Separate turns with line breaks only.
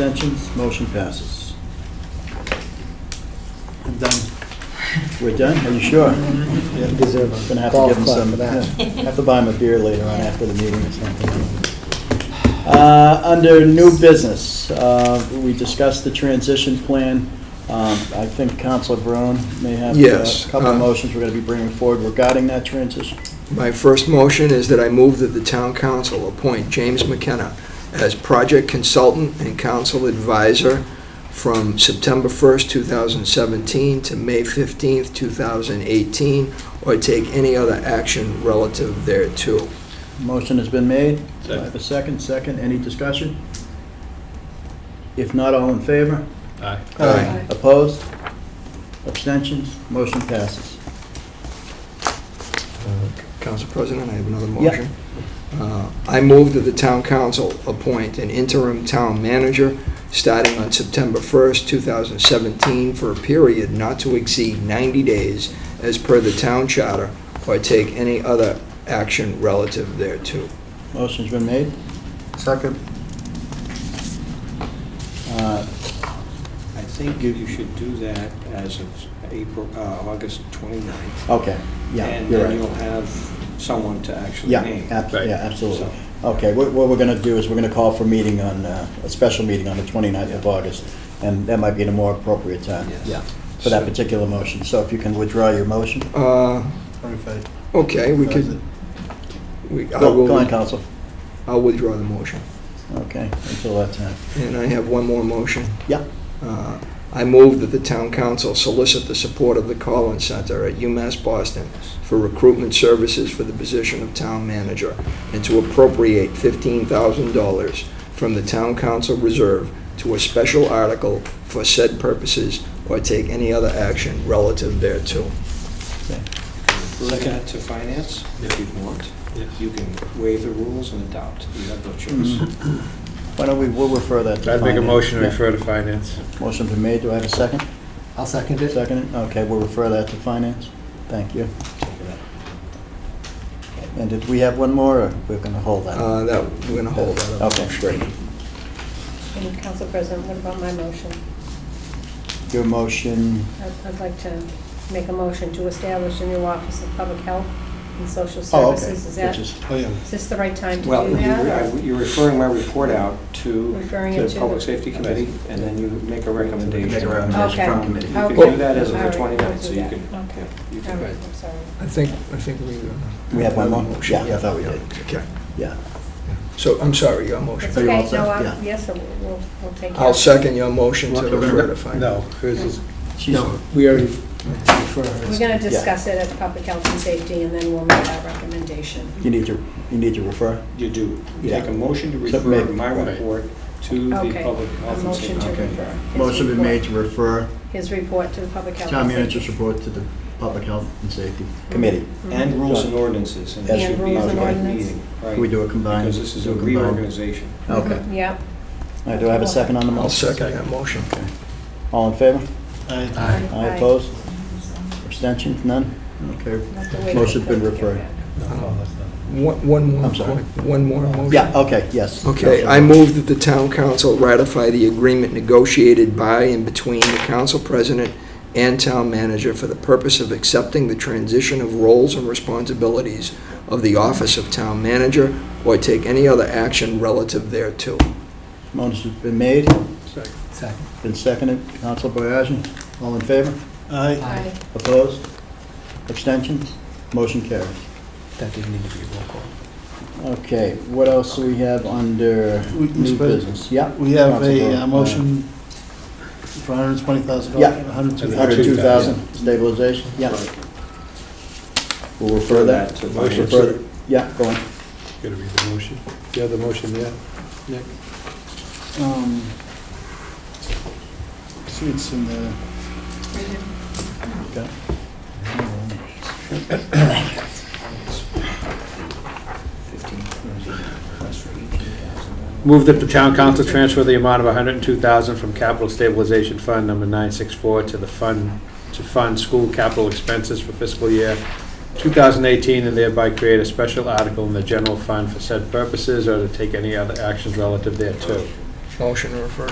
abstentions, motion passes. I'm done. We're done? Are you sure?
You deserve
I'm Gonna
a
have to
golf
give him
club
some,
for that.
yeah, have to buy him a beer later on after the meeting or something. Uh, Under new business, uh, we discussed the transition plan. Um, I think Counselor Brown may have uh,
Yes,
a couple
uh,
of motions we're gonna be bringing forward regarding that transition.
My first motion is that I move that the town council appoint James McKenna as project consultant and council advisor from September 1st, 2017 to May 15th, 2018, or take any other action relative thereto.
Motion has been made. Do I
Second.
have a second? Second, any discussion? If not, all in favor?
Aye.
Aye.
Opposed? Abstentions? Motion passes.
Council President, I have another
Yep.
motion. Uh, I move that the town council appoint an interim town manager starting on September 1st, 2017, for a period not to exceed 90 days as per the town charter, or take any other action relative thereto.
Motion's been made.
Second.
Uh,
I think you should do that as of April, uh, August 29th.
Okay, yeah,
And uh,
you're
then
right.
you'll have someone to actually
Yeah,
name.
ab-
Right.
yeah, absolutely.
So-
Okay, what what we're going to do is we're going to call for meeting on, uh, a special meeting on the 29th of August, and that might be at a more appropriate time,
Yes.
yeah, for that
So-
particular motion. So if you can withdraw your motion.
Uh, Okay, we could,
Go
we- I
go on,
will,
Counsel.
I'll withdraw the motion.
Okay, until that time.
And I have one more motion.
Yeah.
Uh, I move that the town council solicit the support of the Collins Center at UMass Boston for recruitment services for the position of town manager, and to appropriate $15,000 from the town council reserve to a special article for said purposes, or take any other action relative thereto.
Leave that to finance, if you want.
Yes.
You can waive the rules and adopt. You have no
Mm-hmm.
choice.
Why don't we, we'll refer that to
I'd
finance.
make a motion to
Yeah.
refer to finance.
Motion been made, do I have a second?
I'll second it.
Second, okay, we'll refer that to finance. Thank you. And did we have one more, or we're going to hold that?
Uh, That, we're going to hold that up.
Okay, great.
And Council President, what about my motion?
Your motion,
I'd I'd like to make a motion to establish a new Office of Public Health and Social
oh, okay.
Services. Is that,
which is-
is this the right time to do
Well, you-
that?
I-
or-
you're referring my report out to
Referring
the
it to-
Public Safety Committee, and then you make a recommendation.
Make a recommendation
from
Um,
committee.
You can
Okay.
do that as of
All
the
right,
29th, so
we'll do
you
that.
can,
Okay.
yeah, you
All
can.
right, I'm sorry.
I think, I think we... uh,
We have one more?
motion.
Yeah, I thought we did.
Okay.
Yeah.
So, I'm sorry, your motion.
It's
Are you all
okay,
set?
no, I-
Yeah.
yes, so we'll- we'll, we'll take care
I'll
of it.
second your motion to refer to finance.
No, hers is,
She's-
No, we already refer her.
We're going to discuss it at Public Health and Safety, and then we'll make our recommendation.
You need to, you need to refer?
You do. You
Yeah.
Take a motion to
So
refer
make-
my
right.
report to the
Okay,
Public
a
Health and Safety
motion to
Committee.
refer. his
Motion been
report-
made to refer
His report to the Public Health.
town
and Safety.
manager's report to the Public Health and Safety Committee.
Mm-hmm.
And rules and ordinances, and it
And
should be
rules
a
and
joint
ordinance.
meeting.
Can we do a combined?
Because this is
do
a
combined?
reorganization.
Okay.
Mhm, Yep.
All right, do I have a second on the motion?
I'll second that motion.
All in favor?
Aye.
Aye opposed? Abstentions, none? Okay.
We'll have to wait
Motion's
for
been
it to come
referred.
back.
Oh,
One one more,
I'm sorry.
one more motion.
Yeah, okay, yes.
Okay, I move that the town council ratify the agreement negotiated by and between the council president and town manager for the purpose of accepting the transition of roles and responsibilities of the office of town manager or take any other action relative thereto.
Motion's been made,
Second.
been seconded. Counsel Boyajin, all in favor?
Aye.
Opposed? Abstentions? Motion carries.
That didn't need to be a roll call.
Okay, what else do we have under
We-
new
Mr. President,
business? Yeah?
We have
Counsel Brown.
a uh, motion for $120,000.
Yeah. Uh,
Hundred two
102,000 stabilization, yeah. We'll refer that.
to
Motion
finance.
Refer, that. yeah, go on.
gotta read the motion. Do you have the motion there?
Um, See, it's in the,
Okay.
Move that the town council transfer the amount of 102000 from capital stabilization fund number 964 to the fund, to fund school capital expenses for fiscal year 2018, and thereby create a special article in the general fund for said purposes, or to take any other actions relative thereto.
Motion to refer